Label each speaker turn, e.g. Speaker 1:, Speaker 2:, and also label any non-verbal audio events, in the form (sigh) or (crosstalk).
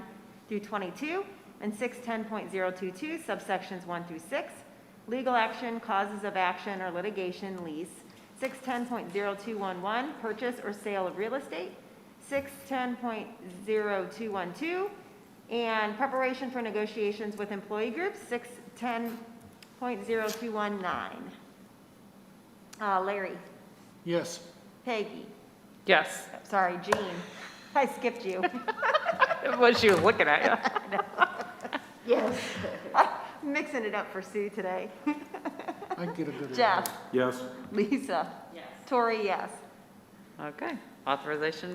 Speaker 1: through 22, and 610.022 subsections 1 through 6, legal action, causes of action or litigation, lease, 610.0211, purchase or sale of real estate, 610.0212, and preparation for negotiations with employee groups, 610.0219. Uh, Larry,
Speaker 2: Yes.
Speaker 1: Peggy,
Speaker 3: Yes, (laughs)
Speaker 1: sorry, Jean, (laughs) I skipped you.
Speaker 3: what she was looking at
Speaker 1: Yes. (laughs) Mixing it up for Sue today.
Speaker 2: I can get a good.
Speaker 1: Jeff,
Speaker 4: Yes.
Speaker 1: Lisa. Yes. Tori, yes.
Speaker 3: you. Okay, authorization